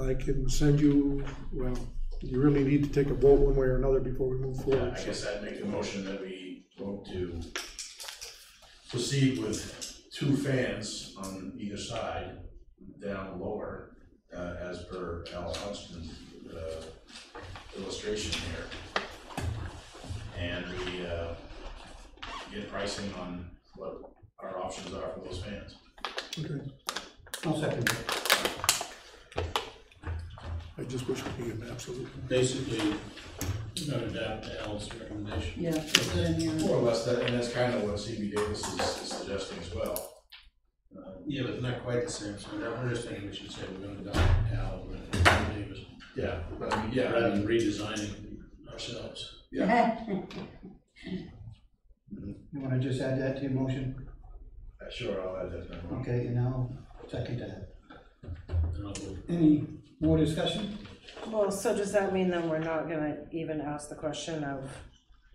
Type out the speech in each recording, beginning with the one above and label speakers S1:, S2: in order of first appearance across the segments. S1: I can send you, well, you really need to take a vote one way or another before we move
S2: Yeah,
S1: forward.
S2: I guess I'd make the motion that we vote to proceed with two fans on either side, down lower, uh, as per Al Huntsman's, uh, illustration here. And we, uh, get pricing on what our options are for those fans.
S1: Okay,
S3: I'll second that.
S1: I just wish we could get an absolute.
S4: basically, we're gonna adapt to Al's recommendation.
S5: Yeah, put that in here.
S2: More or less, that, and that's kind of what CB Davis is is suggesting as well. Uh,
S4: Yeah, but it's not quite the same, so that, we're just thinking we should say we're gonna adopt Al, we're gonna adopt Davis,
S2: Yeah, but I mean, yeah,
S4: rather than redesigning ourselves.
S3: You wanna just add that to your motion?
S2: I- sure, I'll add that. to my motion.
S3: Okay, and I'll second that.
S4: And I'll vote
S3: Any more discussion?
S6: Well, so does that mean then we're not gonna even ask the question of,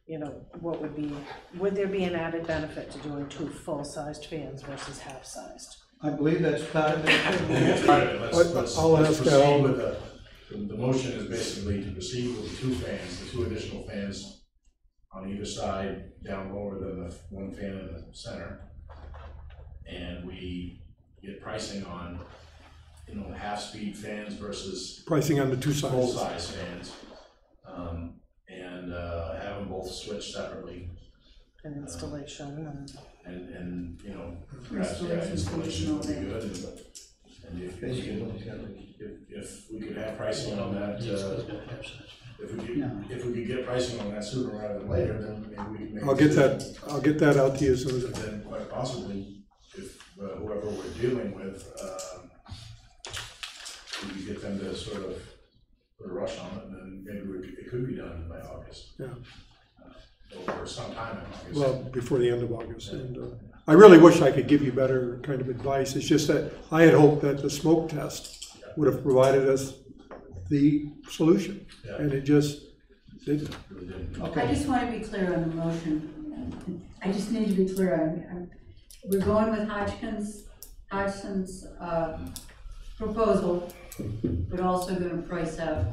S6: you know, what would be, would there be an added benefit to doing two full-sized fans versus half-sized?
S3: I believe that's part of it.
S2: All right, let's,
S1: I'll-
S2: let's,
S1: I'll
S2: let's
S1: ask uh,
S2: proceed
S1: Al.
S2: with the, the the motion is basically to proceed with the two fans, the two additional fans on either side, down lower than the one fan in the center. And we get pricing on, you know, half-speed fans versus
S1: Pricing on the two sides.
S2: full-size fans. Um, and, uh, have them both switch separately
S6: And installation and.
S2: and, and, you know, perhaps, yeah,
S5: Installation,
S2: installation would be
S5: installation,
S2: good and, and if we
S3: Basically,
S2: can,
S3: what he's got to do.
S2: if, if we could have pricing on that,
S4: Yes,
S2: uh,
S4: it's gonna have such.
S2: If we
S3: No.
S2: could, if we could get pricing on that sooner rather than later, then maybe we can make. a
S1: I'll get that,
S2: decision.
S1: I'll get that out to you as soon as I
S2: But Then quite possibly, if uh, whoever we're dealing with, um, we could get them to sort of put a rush on it, and then maybe we could- it could be done by August.
S1: Yeah.
S2: Uh, Or sometime in August.
S1: Well, before the end of August, and uh, I really wish I could give you better kind of advice, it's just that I had hoped that the smoke test would have provided us the solution,
S2: Yeah.
S1: and it just didn't.
S2: Really didn't.
S5: I
S3: Okay,
S5: just want to be clear on the motion. I just need to be clear on, on- we're going with Hodgkins, Hodgson's, uh, proposal, but also gonna price out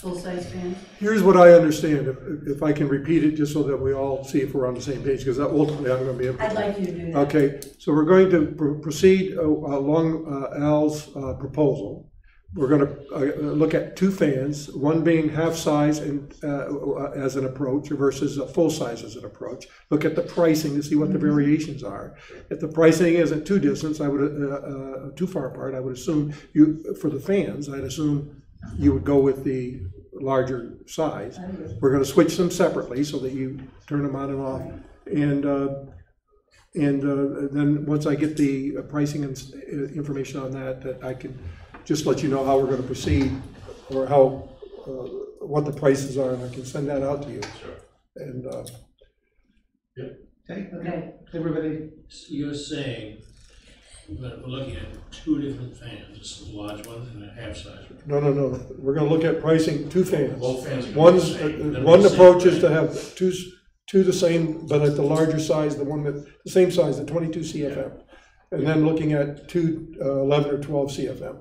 S5: full-size fans?
S1: Here's what I understand, if, if I can repeat it, just so that we all see if we're on the same page, because ultimately I'm gonna be. able to-
S5: I'd like you to do that.
S1: Okay, so we're going to pr- proceed uh, along uh, Al's uh, proposal. We're gonna uh, look at two fans, one being half-size and, uh, as an approach versus a full-size as an approach. Look at the pricing to see what the variations are. If the pricing isn't too distance, I would, uh, uh, too far apart, I would assume you, for the fans, I'd assume you would go with the larger size. We're gonna switch them separately so that you turn them on and off. And, uh, and uh, then, once I get the pricing and s- uh, information on that, that I can just let you know how we're gonna proceed, or how, uh, what the prices are, and I can send that out to you.
S2: Sure.
S1: And, uh,
S3: okay,
S5: Okay.
S3: everybody,
S4: So You're saying, that we're looking at two different fans, this is a large one and a half size one.
S1: no, no, no, we're gonna look at pricing two fans.
S2: Both fans are gonna be the
S1: One's,
S2: same.
S1: uh, uh, one approach is to have two, s- two the same, but at the larger size, the one that, the same size, the twenty-two CFM. And then looking at two, uh, eleven or twelve CFM.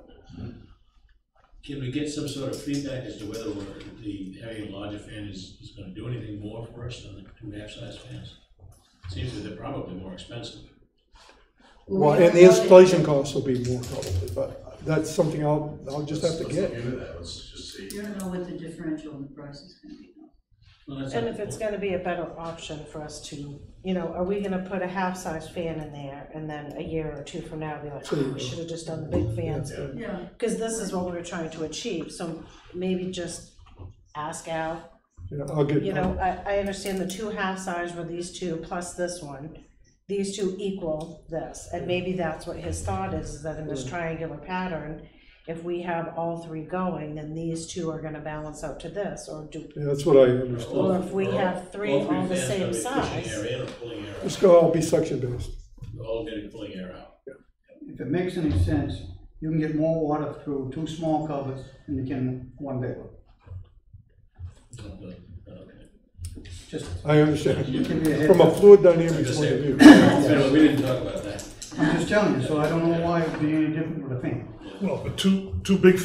S4: Can we get some sort of feedback as to whether we're- the having a larger fan is, is gonna do anything more for us than the two half-size fans? Seems that they're probably more expensive.
S1: Well, and the installation costs will be more probably, but that's something I'll, I'll just have
S2: Let's-
S1: to get.
S2: let's look into that, let's just see.
S5: You don't know what the differential in the price is gonna be. though.
S4: Well, that's
S6: And
S4: not-
S6: if it's gonna be a better option for us to, you know, are we gonna put a half-size fan in there and then a year or two from now be like, "Ah, we should have just done the big fans?
S5: Yeah,
S6: Because this is what we were trying to achieve, so maybe just ask Al,
S1: Yeah, I'll get,
S6: you know, I, I understand the two half-size were these two plus this one. These two equal this, and maybe that's what his thought is, is that in this triangular pattern, if we have all three going, then these two are gonna balance out to this, or do,
S1: yeah, that's what I understand.
S6: or if we have three
S4: All three
S6: all the
S4: fans
S6: same
S4: gotta be
S6: size.
S4: Pushing air in or pulling air
S1: It's
S4: out,
S1: gonna all be suction based.
S4: all getting pulling air out.
S3: if it makes any sense, you can get more water through two small covers than you can one big one.
S4: Not good. Okay.
S3: Just
S1: I understand,
S3: give you a heads
S1: from a
S3: up.
S1: fluid dynamics point of view.
S4: Anyway, We didn't talk about that.
S3: I'm just telling you, so I don't know why it'd be any different with a fan.
S7: Well, but two, two big